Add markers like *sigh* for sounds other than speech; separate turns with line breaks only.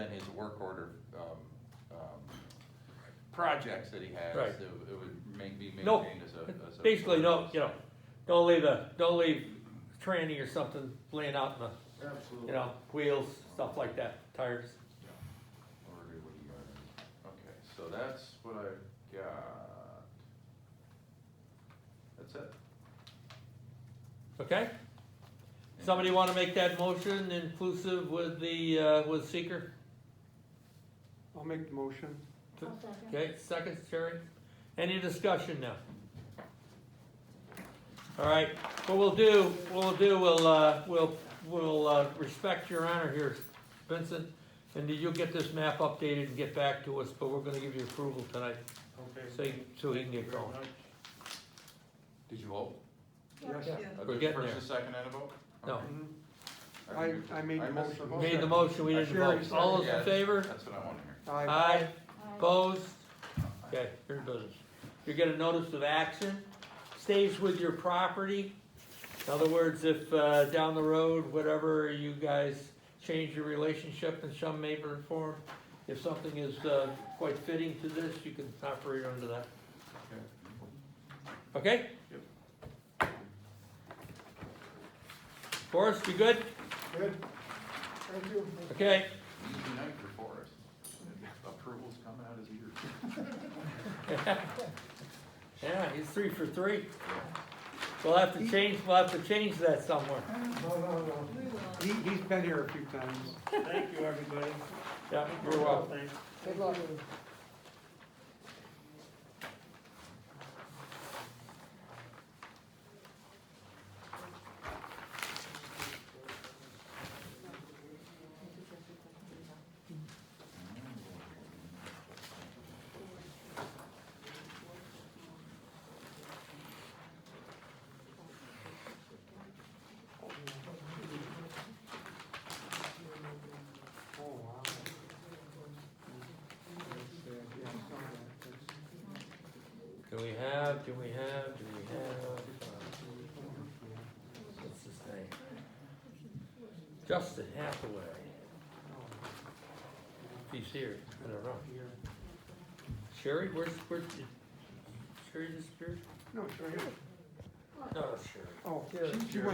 work order, um, um, projects that he has,
Right.
it would- it would make, be
No,
maintained as a, as a.
*laughs* Basically, no, you know, don't leave a, don't leave tranny or something laying out in the, you
Absolutely.
know, wheels, stuff like that, tires.
Or do what you got? Okay, so that's what I got. That's it.
Okay? Somebody wanna make that motion inclusive with the, uh, with seeker?
I'll make the motion.
I'll second.
Okay, second, Sherry? Any discussion now? All right, what we'll do, what we'll do, we'll, uh, we'll, we'll, uh, respect your honor here, Vincent. And you'll get this map updated and get back to us, but we're gonna give you approval tonight,
Okay.
so, you- so he can
Thank you
get
very
going.
much.
Did you vote?
Yes.
Yeah.
Uh,
We're
the
getting
First and second and a vote?
No.
Okay.
Mhm.
I think
I-
we-
I made the
missed
motion.
Made the motion, we didn't vote. All those in favor?
That's what I want to hear. Uh,
Aye.
Aye,
Aye.
opposed? Okay, you're in business. You're gonna notice of action, stays with your property. In other words, if, uh, down the road, whatever, you guys change your relationship in some way or form, if something is, uh, quite fitting to this, you can operate under that. Okay?
Yep.
Forrest, you good?
Good. Thank you.
Okay.
Easy night for Forrest. Approval's coming out his ears.
Yeah, he's three for three. We'll have to change, we'll have to change that somewhere.
No, no, no.
We will.
He, he's been here a few times.
Thank you, everybody.
Yeah, you're welcome.
Thanks.
Good luck.
Oh, wow.
Do we have, do we have, do we have, uh, what's his name? Justin Hathaway, if he's here, I don't know. Sherry, where's, where's, Sherry disappeared?
No, sure.
No, Sherry.
Oh,
Yeah.
she- she went